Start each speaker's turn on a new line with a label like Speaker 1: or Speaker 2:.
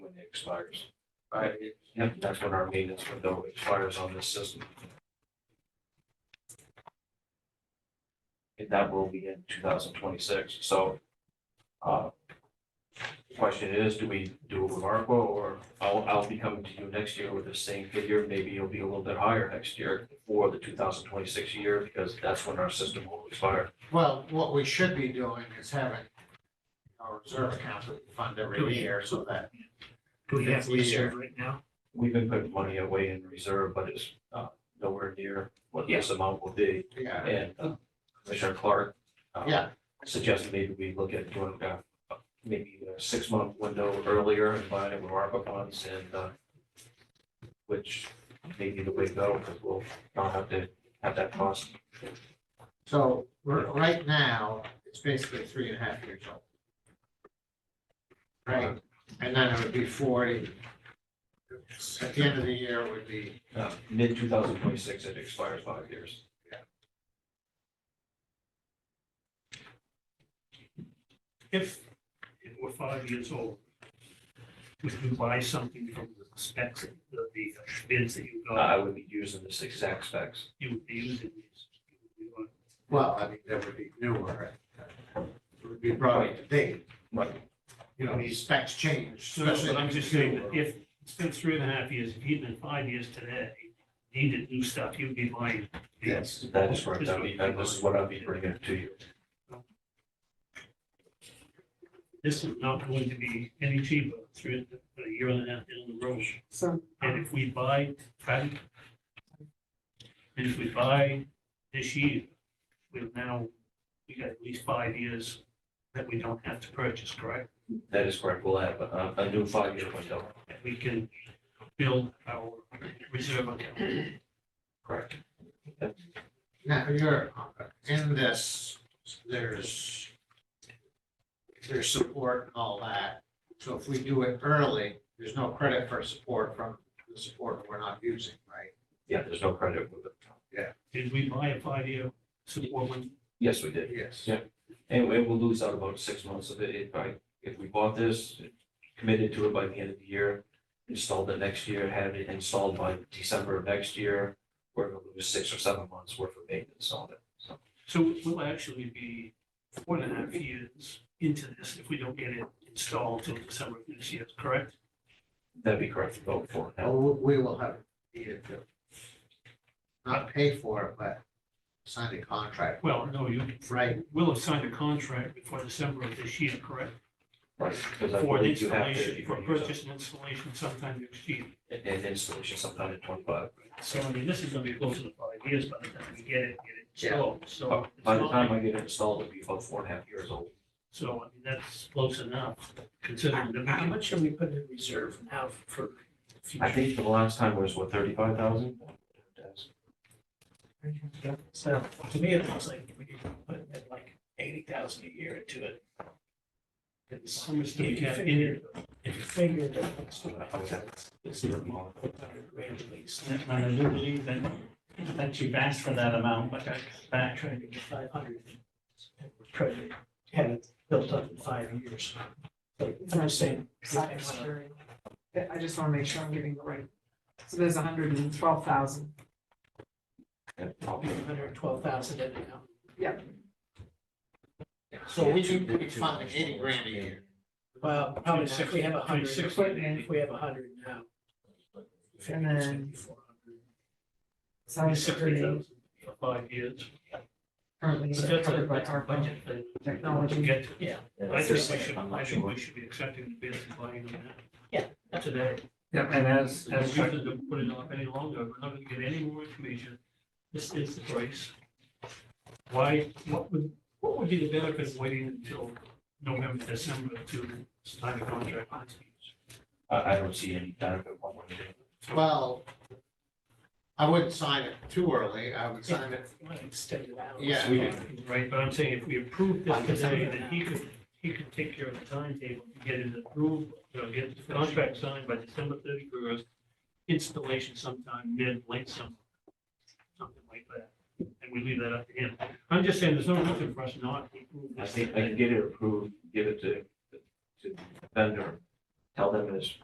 Speaker 1: expires. Right, yep, that's when our maintenance window expires on this system. And that will be in two thousand twenty-six, so. uh, the Question is, do we do it with ARPA or I'll, I'll be coming to you next year with the same figure, maybe it'll be a little bit higher next year for the two thousand twenty-six year, because that's when our system will expire.
Speaker 2: Well, what we should be doing is having a reserve account that we fund every year so that
Speaker 3: Do we have
Speaker 2: It's easier.
Speaker 3: reserve right now?
Speaker 1: We've been putting money away in reserve, but it's uh, nowhere near what this amount will be.
Speaker 2: Yeah,
Speaker 1: And uh, Commissioner Clark uh,
Speaker 2: yeah,
Speaker 1: suggested maybe we look at doing uh, maybe a six-month window earlier and buying it with ARPA funds and uh, which may be the way to go because we'll not have to have that cost.
Speaker 2: so r- right now, it's basically three and a half years old. Right, and then it would be forty. At the end of the year, it would be,
Speaker 1: Uh, Mid two thousand twenty-six, it expires five years.
Speaker 3: If it were five years old, would you buy something from the specs, of the the bids that you got,
Speaker 1: Uh, I would be using this exact specs.
Speaker 3: you would be using these? you would be on-
Speaker 2: well, I mean, that would be newer. It would be brought up to date,
Speaker 1: Right.
Speaker 2: you know, these specs change,
Speaker 3: So, no,
Speaker 2: especially.
Speaker 3: but I'm
Speaker 2: if
Speaker 3: just
Speaker 2: it's
Speaker 3: saying that
Speaker 2: newer.
Speaker 3: if it's been three and a half years, if even five years today, needed new stuff, you'd be buying. these.
Speaker 1: Yes, that is correct. I mean, that- this is what I'll be bringing to you.
Speaker 3: This is not going to be any cheaper through a year and a half down the road.
Speaker 4: So,
Speaker 3: And if we buy, pardon? And if we buy this year, we've now, we got at least five years that we don't have to purchase, correct?
Speaker 1: That is correct. We'll have a, a new five-year window.
Speaker 3: And we can build our reserve account.
Speaker 1: Correct.
Speaker 2: Now, you're, uh, in this, there's, there's support and all that. So if we do it early, there's no credit for support from the support we're not using, right?
Speaker 1: Yeah, there's no credit with it.
Speaker 3: Did we buy a five-year support one?
Speaker 1: Yes, we did.
Speaker 2: Yes.
Speaker 1: Yeah. And we will lose out about six months of it. If I, if we bought this, committed to it by the end of the year, installed it next year, had it installed by December of next year, we're gonna lose six or seven months worth of maintenance on it. So
Speaker 3: So we'll actually be four and a half years into this if we don't get it installed till December of this year, correct?
Speaker 1: that'd be correct to vote for now.
Speaker 2: Well, we we will have needed to not pay for it, but sign a contract.
Speaker 3: Well, no, you,
Speaker 2: Right,
Speaker 3: we'll have signed a contract before December of this year, correct?
Speaker 1: Right, because I
Speaker 3: For an
Speaker 1: believe you have
Speaker 3: installation, for
Speaker 1: to.
Speaker 3: purchase and installation sometime next year.
Speaker 1: And installation sometime in twenty-five.
Speaker 3: So I mean, this is gonna be closer to five years by the time we get it, get it sold, so.
Speaker 1: But By the
Speaker 3: it's not
Speaker 1: time
Speaker 3: like-
Speaker 1: I get it installed, it'll be about four and a half years old.
Speaker 3: So I mean, that's close enough, considering that.
Speaker 4: how
Speaker 3: we-
Speaker 4: much are we putting in reserve now for
Speaker 1: I
Speaker 4: future?
Speaker 1: think the last time was, what, thirty-five thousand?
Speaker 4: So to me, it looks like we could put in like eighty thousand a year into it. It's,
Speaker 3: How much
Speaker 4: if
Speaker 3: do we
Speaker 4: you
Speaker 3: have in
Speaker 4: figure,
Speaker 3: it?
Speaker 4: if you figure that it's at least.
Speaker 5: And I do believe that, that you've asked for that amount, but
Speaker 4: I'm
Speaker 5: that,
Speaker 4: trying to get five hundred. and We're trying to have it built up in five years. But I'm saying.
Speaker 6: cybersecurity. I just want to make sure I'm getting the right, so there's hundred and twelve thousand,
Speaker 4: Hundred twelve thousand in it now.
Speaker 2: so we do, we fund eighty grand a year.
Speaker 4: Well, probably not. if we have a hundred,
Speaker 3: Between
Speaker 4: if
Speaker 3: 60
Speaker 4: we,
Speaker 3: and 80.
Speaker 4: if we have a hundred now.
Speaker 6: And then-
Speaker 3: 60,000
Speaker 6: cybersecurity
Speaker 3: For five years.
Speaker 6: currently
Speaker 3: But
Speaker 6: is
Speaker 3: that's a,
Speaker 6: covered by
Speaker 3: that's a
Speaker 6: ARPA
Speaker 3: budget thing.
Speaker 6: technology.
Speaker 3: To get to.
Speaker 4: Yeah.
Speaker 3: I think we should, I think we should be accepting the bids and buying them now. Today.
Speaker 5: yeah, and as,
Speaker 3: And we shouldn't have put it off any longer, we're not gonna get any more information, this is the price. Why, what would, what would be the benefit of waiting until November, December to sign a contract?
Speaker 1: I, I don't see any benefit one way or the other.
Speaker 2: Well, I wouldn't sign it too early. I would sign it,
Speaker 4: You want to extend it out.
Speaker 2: Yeah.
Speaker 3: Right, but I'm saying if we approve this today, then he could, he could take care of the timetable, to get it approved, you know, get the contract signed by December thirty-first, installation sometime mid, late summer, something like that, and we leave that up to him. I'm just saying, there's no reason for us not to approve
Speaker 1: I
Speaker 3: this.
Speaker 1: think I can get it approved, give it to, to the vendor, tell them it's